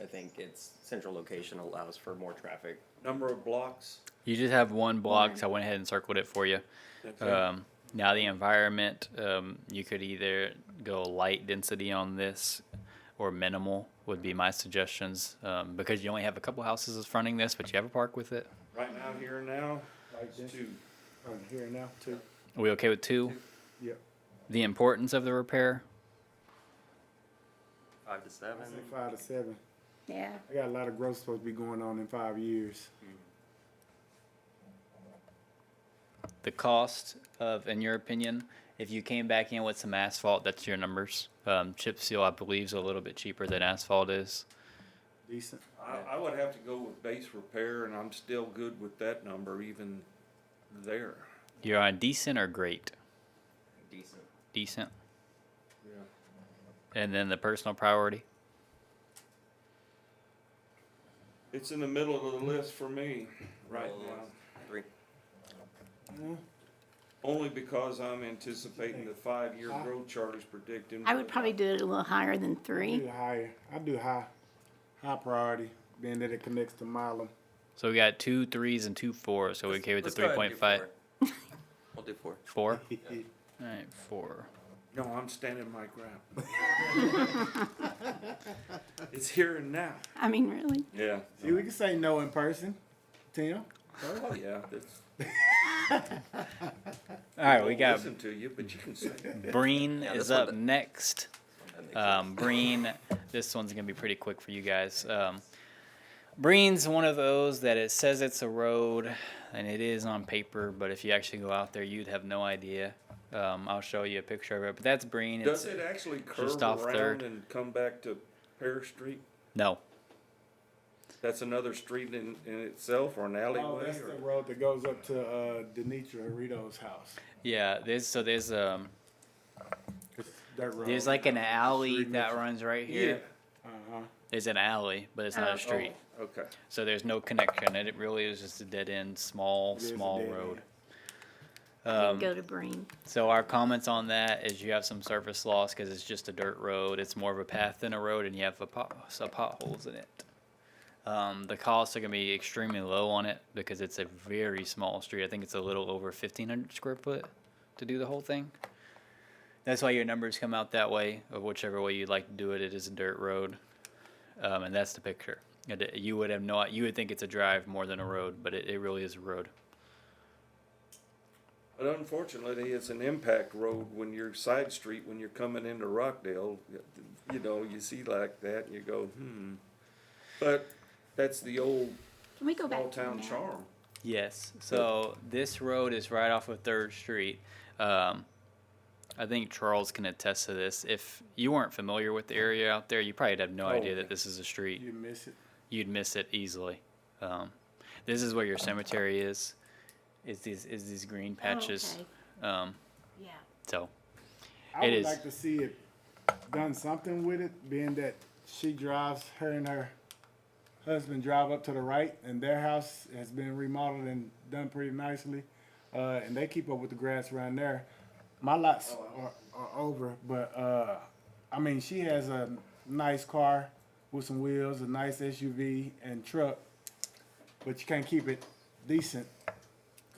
I think its central location allows for more traffic. Number of blocks. You just have one block, One. so I went ahead and circled it for you. that's it. Um, now the environment, um, you could either go light density on this or minimal would be my suggestions um, because you only have a couple houses fronting this, but you have a park with it. Right now, here and now, it's two. On here oh, now, too? Are we okay with two? Yep. The importance of the repair. Five to seven. I say five to seven. Yeah. I got a lot of growth supposed to be going on in five years. the cost of, in your opinion, if you came back in with some asphalt, that's your numbers. Um, chip seal, I believe, is a little bit cheaper than asphalt is. Decent. I, I would have to go with base repair, and I'm still good with that number even there. You're on decent or great? Decent. Decent. Yeah. And then the personal priority. It's in the middle of the list for me Uh, right Middle of the now, list. Three. only because I'm anticipating the five-year Huh? growth chart is predicting. I would probably do it a little higher than I three. do higher. I do high, high priority, being that it connects to Milam. So we got two threes and two fours. So we okay with the Let's go ahead and do 3.5? four. We'll do four. Four? All right, four. No, I'm standing my ground. It's here and now. I mean, really? Yeah. See, we can say no in person, Tim. Oh, yeah, that's. All right, we got Listen to you, but you can say. Breen Yeah, is this one up th- next. That makes Um, Breen, this one's gonna be pretty quick for you guys. Um, Breen's one of those that it says it's a road, and it is on paper, but if you actually go out there, you'd have no idea. Um, I'll show you a picture of it, but that's Breen. Does It's- it actually curve just off around Third. and come back to Pear Street? No, That's another street in, in itself or an Oh, alleyway that's the or? road that goes up to uh, Denitra Rito's house. yeah, there's so there's um It's That road. there's like an alley Street that next- runs right here. Uh huh. There's an alley, but it's not Oh. a street, Okay. so there's no connection. and It really is just a dead end, small, It is a small dead road. Then Um, go to Breen. So our comments on that is you have some surface loss because it's just a dirt road. It's more of a path than a road, and you have a pot, some potholes in it. Um, the costs are gonna be extremely low on it because it's a very small street. I think it's a little over fifteen hundred square foot to do the whole thing. That's why your numbers come out that way, or whichever way you'd like to do it. It is a dirt road, um, and that's the picture. And it- You would have not, you would think it's a drive more than a road, but it, it really is a road. But unfortunately, it's an impact road when you're side street, when you're coming into Rockdale, you know, you see like that and you go, hmm. But that's the old Can we go back? small to Oh, the town map? charm. Yes. So this road is right off of Third Street. Um, I think Charles can attest to this. If you weren't familiar with the area out there, you probably have no Oh, idea okay. that this is a street. You miss it. You'd miss it easily. Um, this is where your cemetery is. Is these is these green Oh, patches? okay. Um, Yeah. so I It would is. like to see it done something with it, being that she drives, her and her husband drive up to the right, and their house has been remodeled and done pretty nicely, uh, and they keep up with the grass around there. My lots are, are over, but uh, I mean, she has a nice car with some wheels, a nice SUV and truck, but you can't keep it decent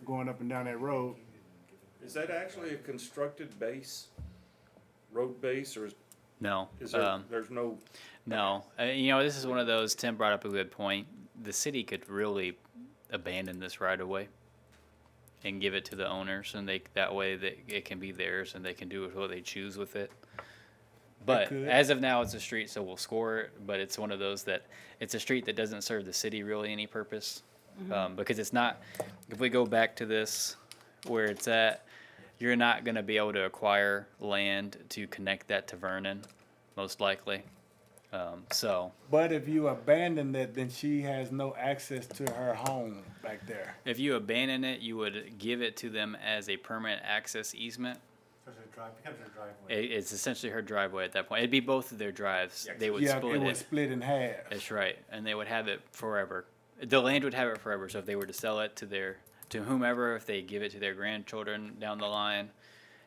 going up and down that road. Is that actually a constructed base, road base, or is- no. is there, Um, there's no, No, uh, you know this is one of those. Tim brought up a good point. The city could really abandon this right away and give it to the owners, and they that way that it can be theirs, and they can do what they choose with it. But could. as of now, it's a street, so we'll score it. But it's one of those that it's a street that doesn't serve the city really any purpose um, because it's not. If we go back to this, where it's at, you're not going to be able to acquire land to connect that to Vernon, most likely. Um, so But if you abandon that, then she has no access to her home back there. if you abandon it, you would give it to them as a permanent access easement. It, it's essentially her driveway at that point. It'd be both of their drives. They would yeah, split it it. was split in half. That's right, and they would have it forever. The land would have it forever. So if they were to sell it to their to whomever, if they give it to their grandchildren down the line,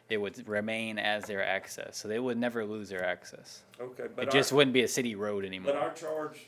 it would remain as their access. So they would never lose their access. okay, but it just our, wouldn't be a city road anymore. but our charge